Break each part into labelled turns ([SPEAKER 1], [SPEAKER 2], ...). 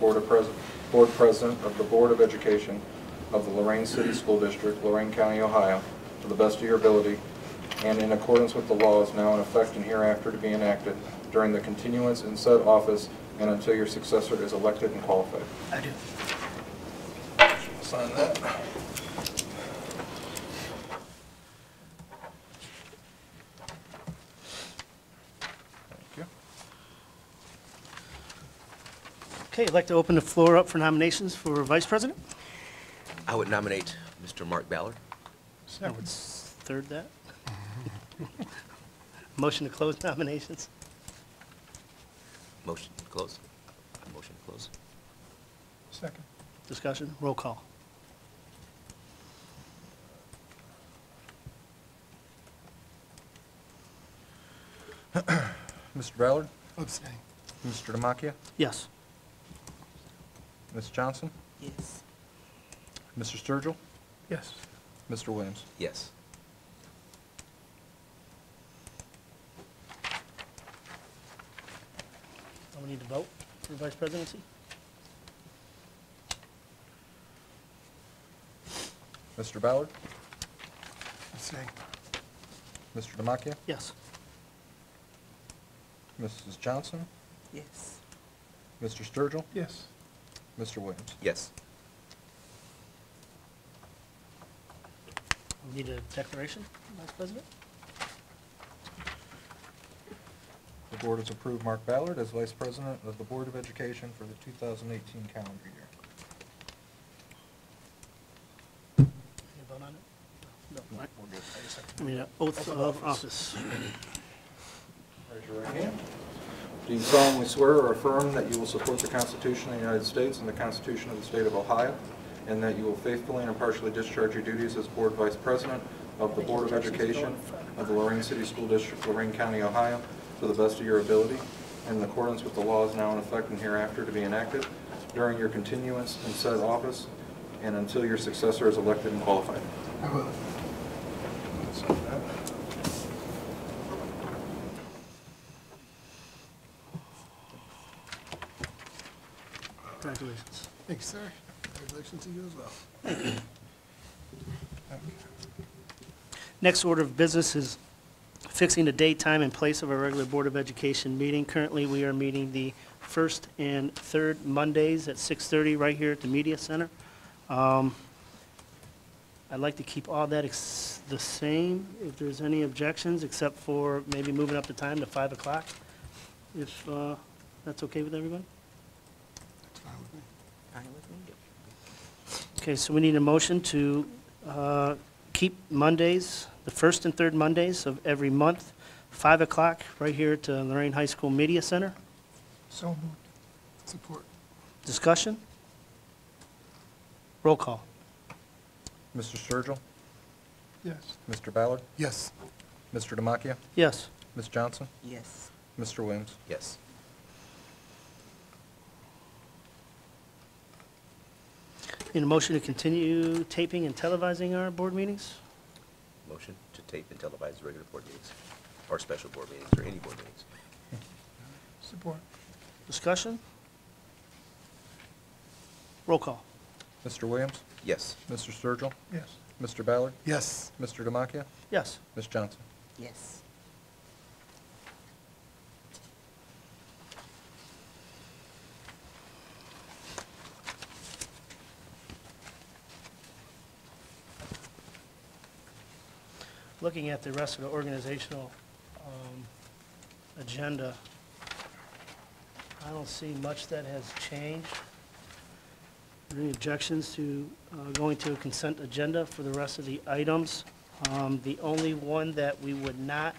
[SPEAKER 1] Board of Pres, Board President of the Board of Education of the Lorraine City School District, Lorraine County, Ohio, to the best of your ability, and in accordance with the laws now in effect and hereafter to be enacted during the continuance in said office and until your successor is elected and qualified.
[SPEAKER 2] I do.
[SPEAKER 1] Sign that. Thank you.
[SPEAKER 2] Okay, I'd like to open the floor up for nominations for Vice President.
[SPEAKER 3] I would nominate Mr. Mark Ballard.
[SPEAKER 2] I would s- third that. Motion to close nominations.
[SPEAKER 3] Motion to close. Motion to close.
[SPEAKER 1] Second.
[SPEAKER 2] Discussion, roll call.
[SPEAKER 1] Mr. Ballard?
[SPEAKER 4] Abstain.
[SPEAKER 1] Mr. Demakia?
[SPEAKER 2] Yes.
[SPEAKER 1] Ms. Johnson?
[SPEAKER 4] Yes.
[SPEAKER 1] Mr. Sturgill?
[SPEAKER 4] Yes.
[SPEAKER 1] Mr. Williams?
[SPEAKER 3] Yes.
[SPEAKER 2] Do we need to vote for Vice Presidency?
[SPEAKER 1] Mr. Ballard?
[SPEAKER 4] Abstain.
[SPEAKER 1] Mr. Demakia?
[SPEAKER 2] Yes.
[SPEAKER 1] Mrs. Johnson?
[SPEAKER 4] Yes.
[SPEAKER 1] Mr. Sturgill?
[SPEAKER 4] Yes.
[SPEAKER 1] Mr. Williams?
[SPEAKER 3] Yes.
[SPEAKER 2] We Need a declaration, Vice President?
[SPEAKER 1] The board has approved Mark Ballard as Vice President of the Board of Education for the 2018 calendar year.
[SPEAKER 2] Can you vote on it? No,
[SPEAKER 1] We're
[SPEAKER 2] right.
[SPEAKER 1] good.
[SPEAKER 2] I mean, uh, oath of office.
[SPEAKER 1] Raise your right hand. Do you solemnly swear or affirm that you will support the Constitution of the United States and the Constitution of the State of Ohio, and that you will faithfully and impartially discharge your duties as Board Vice President of the Board of Education of the Lorraine City School District, Lorraine County, Ohio, to the best of your ability, and in accordance with the laws now in effect and hereafter to be enacted, during your continuance in said office, and until your successor is elected and qualified?
[SPEAKER 4] I will.
[SPEAKER 2] Congratulations.
[SPEAKER 4] Thank you, sir. Congratulations to you as well.
[SPEAKER 2] Next order of business is fixing the date, time, and place of our regular Board of Education meeting. Currently, we are meeting the first and third Mondays at 6:30 right here at the Media Center. Um, I'd like to keep all that ex- the same, if there's any objections, except for maybe moving up the time to 5 o'clock, if uh, that's okay with everybody?
[SPEAKER 4] That's fine with me. Fine with me.
[SPEAKER 2] Okay, so we need a motion to uh, keep Mondays, the first and third Mondays of every month, 5 o'clock, right here at the Lorraine High School Media Center.
[SPEAKER 4] So moved. Support.
[SPEAKER 2] Discussion? Roll call.
[SPEAKER 1] Mr. Sturgill?
[SPEAKER 4] Yes.
[SPEAKER 1] Mr. Ballard?
[SPEAKER 4] Yes.
[SPEAKER 1] Mr. Demakia?
[SPEAKER 2] Yes.
[SPEAKER 1] Ms. Johnson?
[SPEAKER 4] Yes.
[SPEAKER 1] Mr. Williams?
[SPEAKER 3] Yes.
[SPEAKER 2] Need a motion to continue taping and televising our board meetings?
[SPEAKER 3] Motion to tape and televise regular board meetings, or special board meetings, or any board meetings.
[SPEAKER 4] Support.
[SPEAKER 2] Discussion? Roll call.
[SPEAKER 1] Mr. Williams?
[SPEAKER 3] Yes.
[SPEAKER 1] Mr. Sturgill?
[SPEAKER 4] Yes.
[SPEAKER 1] Mr. Ballard?
[SPEAKER 4] Yes.
[SPEAKER 1] Mr. Demakia?
[SPEAKER 2] Yes.
[SPEAKER 1] Ms. Johnson?
[SPEAKER 4] Yes.
[SPEAKER 2] looking at the rest of the organizational um, agenda, I don't see much that has changed. Are there Any objections to uh, going to a consent agenda for the rest of the items? Um, The only one that we would not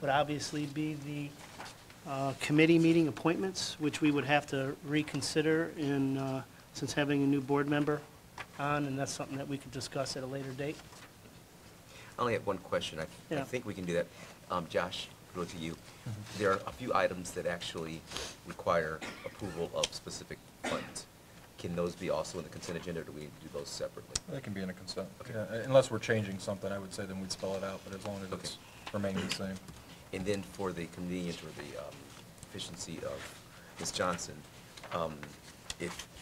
[SPEAKER 2] would obviously be the uh, committee meeting appointments, which we would have to reconsider in, uh, since having a new board member on, and that's something that we could discuss at a later date.
[SPEAKER 3] I only have one question. I, I
[SPEAKER 2] Yeah.
[SPEAKER 3] think we can do that. Um, Josh, go to you. There are a few items that actually require approval of specific funds. Can those be also in the consent agenda, or do we need to do those separately?
[SPEAKER 1] That can be in a consent.
[SPEAKER 3] Okay.
[SPEAKER 1] Yeah, Unless we're changing something, I would say then we'd spell it out, but as long as
[SPEAKER 3] Okay.
[SPEAKER 1] it's remaining the same.
[SPEAKER 3] And then for the convenience or the um, efficiency of Ms. Johnson, um, if